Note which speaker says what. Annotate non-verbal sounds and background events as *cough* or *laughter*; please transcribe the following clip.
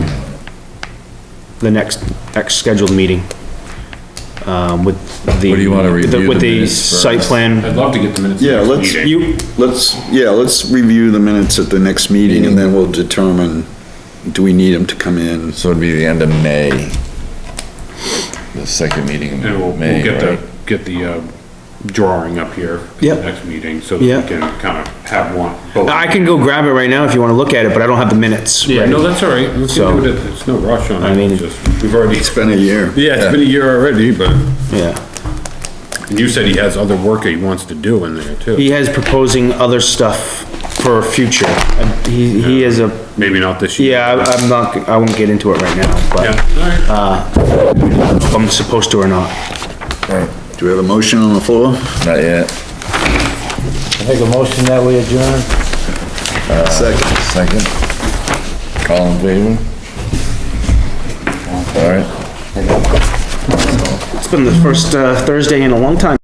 Speaker 1: the next, next scheduled meeting. Um, with the.
Speaker 2: What do you wanna review
Speaker 1: With
Speaker 2: the
Speaker 1: the
Speaker 2: minutes first?
Speaker 1: site plan,
Speaker 3: I'd love to get the minutes. of
Speaker 4: Yeah,
Speaker 3: this
Speaker 4: let's-
Speaker 3: meeting.
Speaker 1: you,
Speaker 4: Let's, yeah, let's review the minutes at the next meeting and then we'll determine, do we need them to come in?
Speaker 2: So it'd be the end of May. The second meeting
Speaker 3: And we'll,
Speaker 2: in
Speaker 3: we'll
Speaker 2: May,
Speaker 3: get
Speaker 2: right?
Speaker 3: the, get the, uh, drawing up here for the
Speaker 1: Yep.
Speaker 3: next meeting, so that
Speaker 1: Yep.
Speaker 3: we can kind of have one, both.
Speaker 1: I can go grab it right now if you wanna look at it, but I don't have the minutes.
Speaker 3: Yeah,
Speaker 1: ready.
Speaker 3: no, that's all right, we
Speaker 1: So-
Speaker 3: can do it, it's no rush on
Speaker 1: I
Speaker 3: it,
Speaker 1: mean-
Speaker 3: it's just, we've already, *laughs*
Speaker 4: It's been a year.
Speaker 3: yeah, it's been a year already, but,
Speaker 1: Yeah.
Speaker 3: and you said he has other work that he wants to do in there too.
Speaker 1: He has proposing other stuff for future. Uh, He, he is a,
Speaker 3: Maybe not this year.
Speaker 1: yeah, I- I'm not, I won't get into it right now,
Speaker 3: Yeah,
Speaker 1: but
Speaker 3: all right.
Speaker 1: if I'm supposed to or not.
Speaker 2: Right,
Speaker 4: Do we have a motion on the floor?
Speaker 2: Not yet,
Speaker 5: I Make a motion that we adjourn.
Speaker 4: Second.
Speaker 2: second. All in favor? All right.
Speaker 1: It's been the first, uh, Thursday in a long time.